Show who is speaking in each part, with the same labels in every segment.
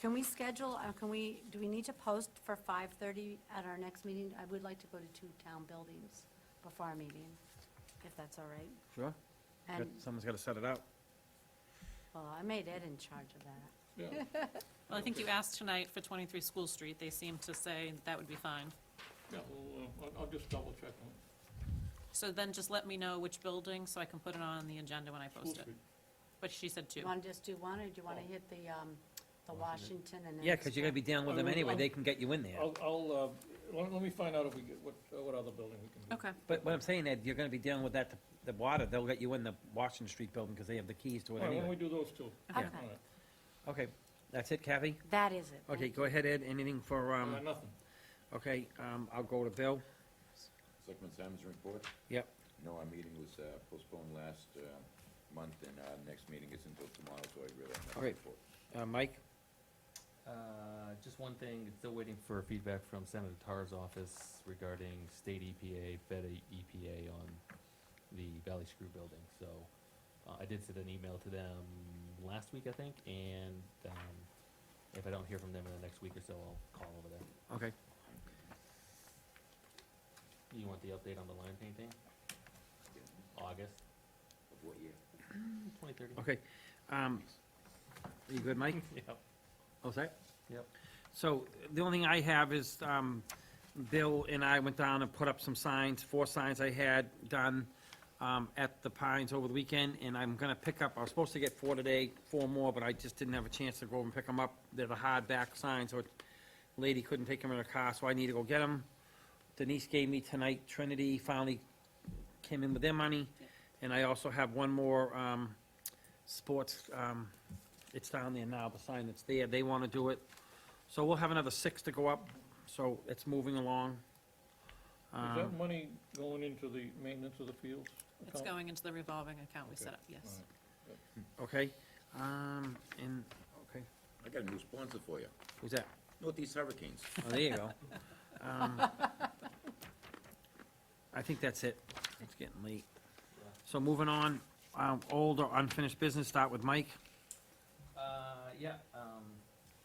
Speaker 1: Can we schedule, uh, can we, do we need to post for 5:30 at our next meeting? I would like to go to two town buildings before our meeting, if that's all right.
Speaker 2: Sure.
Speaker 1: And,
Speaker 2: Someone's got to set it up.
Speaker 1: well, I made Ed in charge of that.
Speaker 3: Yeah.
Speaker 4: Well, I think you asked tonight for 23 School Street. They seemed to say that would be fine.
Speaker 3: Yeah, well, uh, I'll- I'll just double check on
Speaker 4: So then just let me know which building so I can put it on the agenda when I
Speaker 3: School
Speaker 4: post it.
Speaker 3: Street.
Speaker 4: But she said
Speaker 1: Do
Speaker 4: two.
Speaker 1: you want to just do one, or do you want to hit the, um, the Washington and then?
Speaker 5: Yeah, because you're gonna be down with them anyway, they can get you in there.
Speaker 3: I'll, I'll, uh, let let me find out if we get, what, uh, what other building we can do.
Speaker 4: Okay,
Speaker 5: But what I'm saying, Ed, you're gonna be dealing with that, the water, they'll let you in the Washington Street building, because they have the keys to
Speaker 3: All
Speaker 5: it
Speaker 3: right, why don't we
Speaker 5: anyway.
Speaker 3: do those two?
Speaker 1: Okay.
Speaker 3: All right.
Speaker 5: Okay, that's it, Kathy?
Speaker 1: That is it.
Speaker 5: Okay,
Speaker 1: Thank
Speaker 5: go ahead, Ed, anything for,
Speaker 3: I
Speaker 5: um,
Speaker 3: got Uh, nothing.
Speaker 5: okay, um, I'll go to Bill.
Speaker 6: Selectman Simon's report?
Speaker 5: Yep.
Speaker 6: No, our meeting was uh, postponed last uh, month, and our next meeting is until tomorrow, so I really have
Speaker 5: All
Speaker 6: no
Speaker 5: right.
Speaker 6: report.
Speaker 5: Uh, Mike?
Speaker 7: Uh, Just one thing, still waiting for feedback from Senator Tarr's office regarding state EPA, Fed EPA on the Valley Screw building. So uh, I did send an email to them last week, I think, and um, if I don't hear from them in the next week or so, I'll call over there.
Speaker 5: Okay.
Speaker 7: You want the update on the line painting? August
Speaker 6: Of what year?
Speaker 7: twenty thirty?
Speaker 5: Okay, um, you good, Mike?
Speaker 7: Yep,
Speaker 5: All set?
Speaker 7: yep.
Speaker 5: So the only thing I have is, um, Bill and I went down and put up some signs, four signs I had done, um, at the Pines over the weekend, and I'm gonna pick up, I was supposed to get four today, four more, but I just didn't have a chance to go over and pick them up. They're the hardback signs, so a lady couldn't take them in her car, so I need to go get them. Denise gave me tonight, Trinity finally came in with their money, and I also have one more, um, sports, um, it's down there now, the sign that's there, they wanna do it. So we'll have another six to go up, so it's moving along.
Speaker 3: Is
Speaker 5: Um,
Speaker 3: that money going into the maintenance of the fields?
Speaker 4: it's
Speaker 3: account?
Speaker 4: going into the revolving account we
Speaker 3: Okay.
Speaker 4: set up, yes.
Speaker 3: All
Speaker 5: Okay, um, and, okay,
Speaker 6: I got a new sponsor for you,
Speaker 5: who's that?
Speaker 6: Northeast Hurricanes.
Speaker 5: Oh, there you go. Um, I think that's it. It's getting late. So moving on, um, old or unfinished business, start with Mike.
Speaker 7: Uh, yeah, um,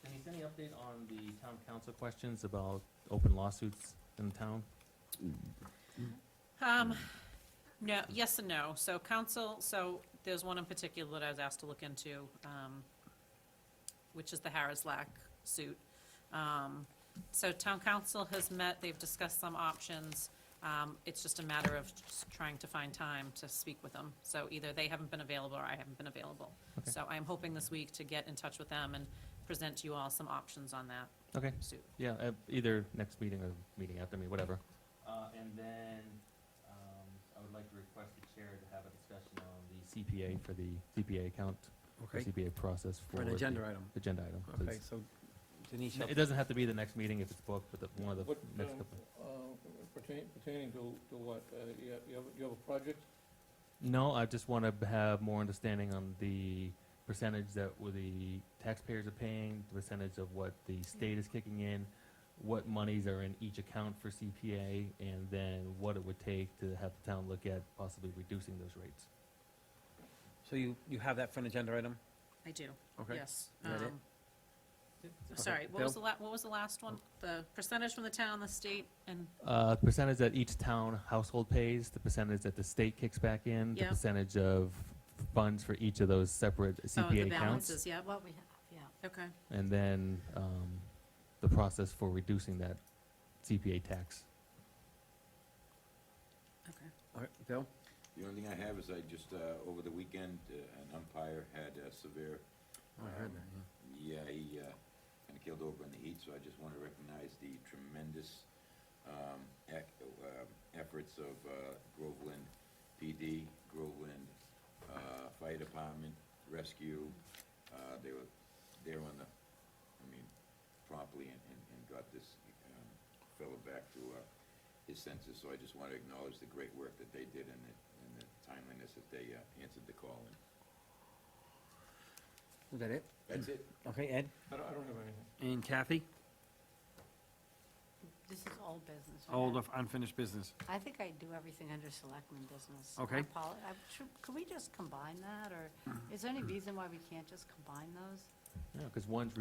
Speaker 7: Denise, any update on the town council questions about open lawsuits in town?
Speaker 4: Um, no, yes and no. So council, so there's one in particular that I was asked to look into, um, which is the Harris Lack suit. Um, so town council has met, they've discussed some options. Um, it's just a matter of just trying to find time to speak with them. So either they haven't been available or I haven't been available.
Speaker 7: Okay.
Speaker 4: So I'm hoping this week to get in touch with them and present you all some options on that
Speaker 7: Okay,
Speaker 4: suit.
Speaker 7: Yeah, uh, either next meeting or meeting after me, whatever. Uh, and then, um, I would like to request the chair to have a discussion on the CPA for the CPA account, the
Speaker 5: Okay,
Speaker 7: CPA process for.
Speaker 5: for an
Speaker 7: the
Speaker 5: agenda item.
Speaker 7: Agenda item.
Speaker 5: Okay,
Speaker 7: please.
Speaker 5: so Denise,
Speaker 7: N- It doesn't have to be the next meeting if it's booked, but the, one of the
Speaker 3: What,
Speaker 7: next
Speaker 3: um,
Speaker 7: couple.
Speaker 3: uh, pertain- Pertaining to, to what? Uh, You have- you have, you have a project?
Speaker 7: No, I just want to have more understanding on the percentage that w- the taxpayers are paying, the percentage of what the state is kicking in, what monies are in each account for CPA, and then what it would take to have the town look at possibly reducing those rates.
Speaker 5: so you, you have that for an agenda item?
Speaker 4: I do.
Speaker 5: Okay.
Speaker 4: Yes.
Speaker 5: Is that it?
Speaker 4: um, Sorry, what was the la, what was the last one? The percentage from the town, the state, and,
Speaker 7: Uh, percentage that each town household pays, the percentage that the state kicks back in, the
Speaker 4: Yeah.
Speaker 7: percentage of funds for each of those separate
Speaker 4: oh, the
Speaker 7: CPA accounts,
Speaker 4: balances, yeah,
Speaker 1: What we have, yeah.
Speaker 4: okay.
Speaker 7: and then, um, the process for reducing that CPA tax.
Speaker 5: All right, Bill?
Speaker 6: The only thing I have is I just, uh, over the weekend, uh, an umpire had a severe,
Speaker 5: Oh,
Speaker 6: um,
Speaker 5: I heard that,
Speaker 6: yeah, he kind of killed over in the heat, so I just want to recognize the tremendous um, ec- um, efforts of uh, Groveland PD, Groveland uh, Fire Department, Rescue. Uh, They were there on the, I mean, promptly and and- and got this um, fellow back to uh, his senses. So I just want to acknowledge the great work that they did and the and the timeliness that they uh, answered the call.
Speaker 5: Is
Speaker 6: And
Speaker 5: that it?
Speaker 6: That's it.
Speaker 5: Okay, Ed
Speaker 3: I don't, I don't have anything.
Speaker 5: and Kathy?
Speaker 1: This is old business. right?
Speaker 5: Old or unfinished business?
Speaker 1: I think I do everything under selectmen business. I
Speaker 5: Okay.
Speaker 1: apol- I- should- Could we just combine that, or is there any reason why we can't just combine those?
Speaker 7: Yeah, because one's